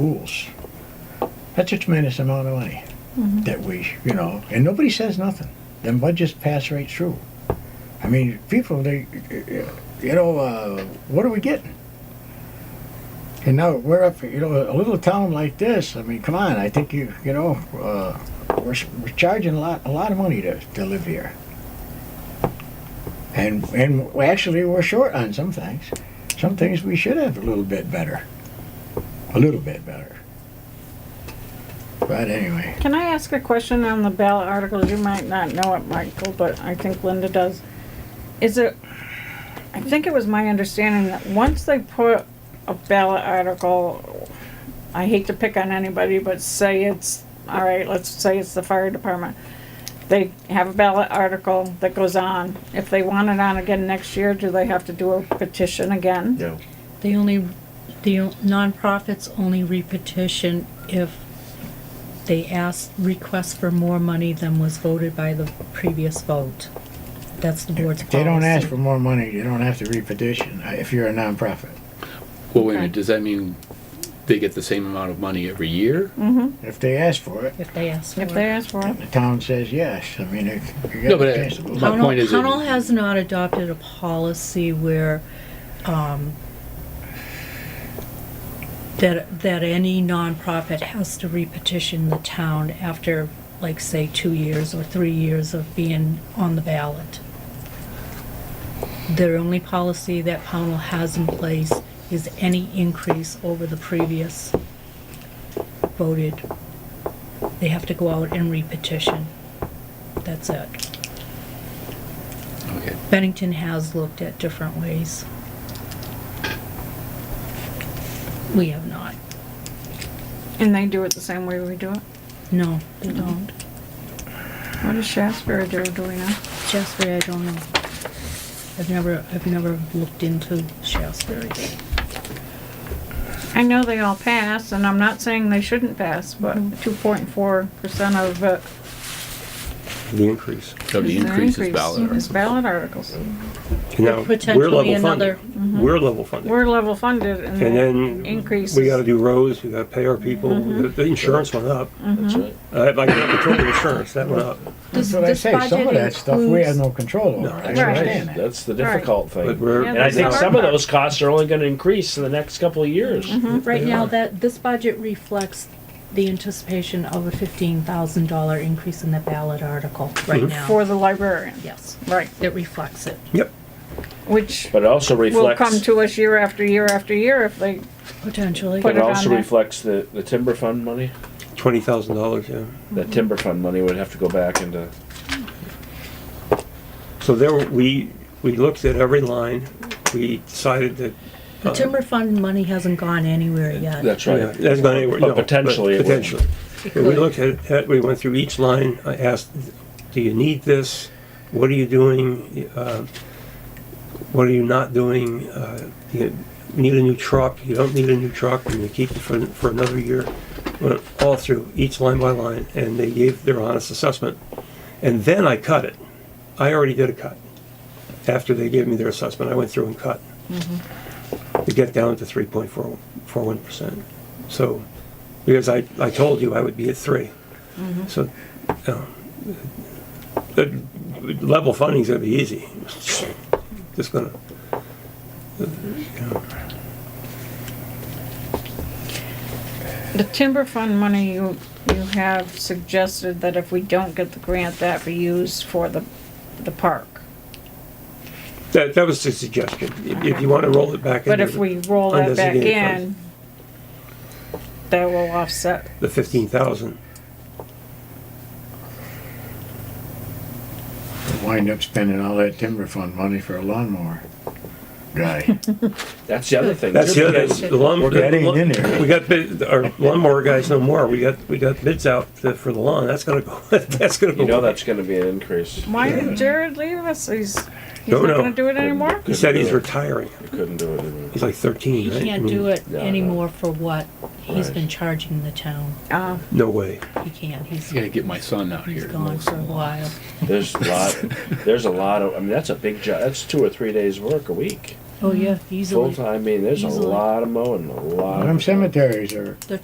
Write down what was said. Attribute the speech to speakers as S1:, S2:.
S1: schools. That's a tremendous amount of money that we, you know, and nobody says nothing. Them budgets pass right through. I mean, people, they, you know, uh, what are we getting? And now we're up, you know, a little town like this, I mean, come on, I think you, you know, uh, we're, s- we're charging a lot, a lot of money to, to live here. And, and actually, we're short on some things. Some things we should have a little bit better. A little bit better. But anyway,
S2: Can I ask a question on the ballot articles? You might not know it, Michael, but I think Linda does. Is it, I think it was my understanding that once they put a ballot article, I hate to pick on anybody, but say it's, all right, let's say it's the fire department. They have a ballot article that goes on. If they want it on again next year, do they have to do a petition again?
S3: No.
S4: They only, the nonprofits only repetition if they ask, request for more money than was voted by the previous vote. That's the board's
S1: if
S4: policy.
S1: they don't ask for more money, you don't have to repetition uh, if you're a nonprofit.
S5: Well, wait
S4: Okay.
S5: a minute, does that mean they get the same amount of money every year?
S1: If they ask for it,
S4: If they ask for
S2: If they
S4: it.
S2: ask for it?
S1: and the town says yes, I mean, it- you
S5: No,
S1: got
S5: but
S1: a
S5: I-
S1: chance to vote.
S5: my point
S4: Pownell
S5: is it-
S4: Pownell has not adopted a policy where, um, that, that any nonprofit has to repetition the town after, like, say, two years or three years of being on the ballot. Their only policy that Pownell has in place is any increase over the previous voted. They have to go out and repetition. That's it. Mm.
S5: Okay.
S4: Bennington has looked at different ways. We have not.
S2: And they do it the same way we do it?
S4: No, they don't.
S2: What does Shasberry do, do we know?
S4: Shasbury, I don't know. I've never, I've never looked into Shasbury.
S2: I know they all pass, and I'm not saying they shouldn't pass, but
S6: Mm-hmm.
S2: two point four percent of uh, it
S6: the increase.
S5: So the
S2: is their
S5: increase is
S2: increase,
S5: valid.
S2: is
S4: Mm-hmm.
S2: ballot articles.
S6: Now, we're
S4: potentially
S6: level
S4: another- mm-hmm.
S6: funded. We're level funded.
S2: We're level funded and then
S6: And then
S2: increases.
S6: we gotta do roads, we gotta pay our people,
S4: Mm-hmm.
S6: the the insurance went up.
S3: That's right.
S6: Uh, If I got control of insurance, that went up.
S4: Does
S1: That's what I
S4: this
S1: say, some of
S4: budget
S1: that stuff we have
S4: includes-
S1: no control over.
S6: No,
S1: I
S6: that's
S2: right.
S1: understand that.
S3: That's the difficult
S6: But
S3: thing.
S6: we're,
S2: Yeah,
S3: And I
S2: that's
S3: think
S2: the
S3: some
S2: hard
S3: of
S2: part.
S3: those costs are only gonna increase in the next couple of years.
S4: Right now, that, this budget reflects the anticipation of a fifteen thousand dollar increase in the ballot article right now.
S2: For the librarian,
S4: Yes,
S2: right,
S4: it reflects it,
S6: yep,
S2: which
S3: But it also
S2: will come
S3: reflects,
S2: to us year after year after year if they,
S4: potentially.
S2: Put
S3: it
S2: it on
S3: also
S2: there.
S3: reflects the, the timber fund money.
S6: twenty thousand dollars, yeah.
S3: That timber fund money would have to go back into,
S6: So there, were- we, we looked at every line, we decided that,
S4: The timber fund money hasn't gone anywhere yet.
S3: that's
S6: yeah,
S3: right.
S6: that's not anywhere,
S3: But
S6: no. but
S3: potentially it would.
S6: Potentially.
S4: It
S6: And we
S4: could.
S6: looked at, at, we went through each line, I asked, do you need this? What are you doing? Uh, What are you not doing? Uh, Do you need a new truck? You don't need a new truck, and you keep it for, for another year? Went all through, each line by line, and they gave their honest assessment. And then I cut it. I already did a cut. After they gave me their assessment, I went through and cut.
S4: Mm-hmm.
S6: To get down to three point four, four one percent. So, because I, I told you I would be at three.
S4: Mm-hmm.
S6: So, um, the level funding's gonna be easy. Just gonna,
S2: the timber fund money you, you have suggested that if we don't get the grant, that be used for the, the park.
S6: that, that was the suggestion. If- If you wanna roll it back
S2: But
S6: into
S2: if we roll
S6: on
S2: that
S6: this
S2: back
S6: again,
S2: in, that will offset.
S6: the fifteen thousand,
S1: Wind up spending all that timber fund money for a lawnmower guy.
S3: That's the other thing.
S6: that's the other,
S3: Because
S6: the lawn-
S1: That ain't in there.
S6: We got bid, our lawnmower guys no more. We got, we got bids out to- for the lawn. That's gonna go, that's gonna go.
S3: You know that's gonna be an increase.
S2: Why did Jared leave us? He's, he's
S6: Don't
S2: not
S6: know.
S2: gonna do it anymore?
S6: He said he's retiring.
S3: You Couldn't do it anymore.
S6: He's like thirteen,
S4: He
S6: right? I
S4: can't
S6: mean,
S4: do it
S3: Yeah, I know.
S4: anymore for what he's
S3: Right.
S4: been charging the town.
S2: Uh,
S6: No way.
S4: He can't, he's,
S5: I gotta get my son out
S4: he's
S5: here.
S4: gone for a while.
S3: There's a lot, there's a lot of, I mean, that's a big job. That's two or three days' work a week.
S4: Oh, yeah, easily.
S3: Full time, I mean, there's a
S4: Easily.
S3: lot of mowing, a lot.
S1: Them
S3: of
S1: cemeteries are
S4: They're